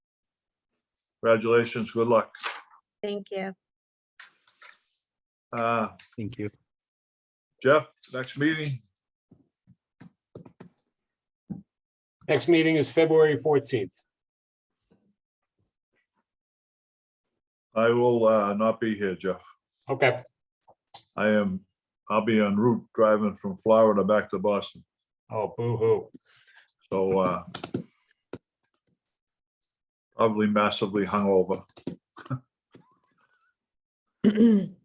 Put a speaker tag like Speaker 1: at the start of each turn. Speaker 1: Congratulations, good luck.
Speaker 2: Thank you.
Speaker 1: Uh,
Speaker 3: Thank you.
Speaker 1: Jeff, next meeting,
Speaker 4: Next meeting is February fourteenth.
Speaker 1: I will uh, not be here, Jeff.
Speaker 4: Okay,
Speaker 1: I am, I'll be en route driving from Florida back to Boston,
Speaker 4: oh, boo-hoo.
Speaker 1: so uh, probably massively hungover.